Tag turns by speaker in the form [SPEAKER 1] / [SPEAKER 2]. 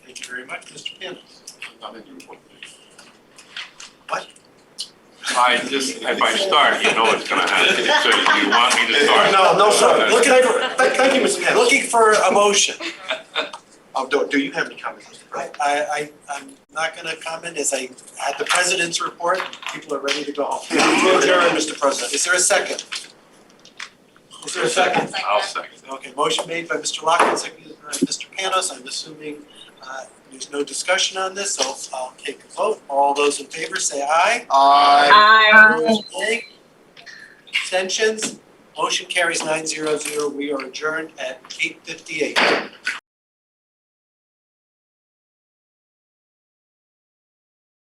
[SPEAKER 1] very much, Mr. Pena.
[SPEAKER 2] Not in the report.
[SPEAKER 3] I just, if I start, you know it's gonna happen, so you want me to start?
[SPEAKER 1] No, no, sir, looking for, thank, thank you, Mr. Pena, looking for a motion.
[SPEAKER 2] Oh, do, do you have any comments, Mr.
[SPEAKER 1] I,
[SPEAKER 2] President?
[SPEAKER 1] I, I'm not gonna comment, as I had the president's report, people are ready to go home.
[SPEAKER 2] Move adjourn,
[SPEAKER 1] Mr. President. Is there a second? Is there a second?
[SPEAKER 3] I'll second.
[SPEAKER 1] Okay, motion made by Mr. Lockwood, seconded by Mr. Panos. I'm assuming uh, there's no discussion on this, so I'll take a vote. All those in favor say aye.
[SPEAKER 2] I,
[SPEAKER 4] Aye.
[SPEAKER 1] Opposed, nay. Abstentions? Motion carries nine zero zero. We are adjourned at eight fifty-eight.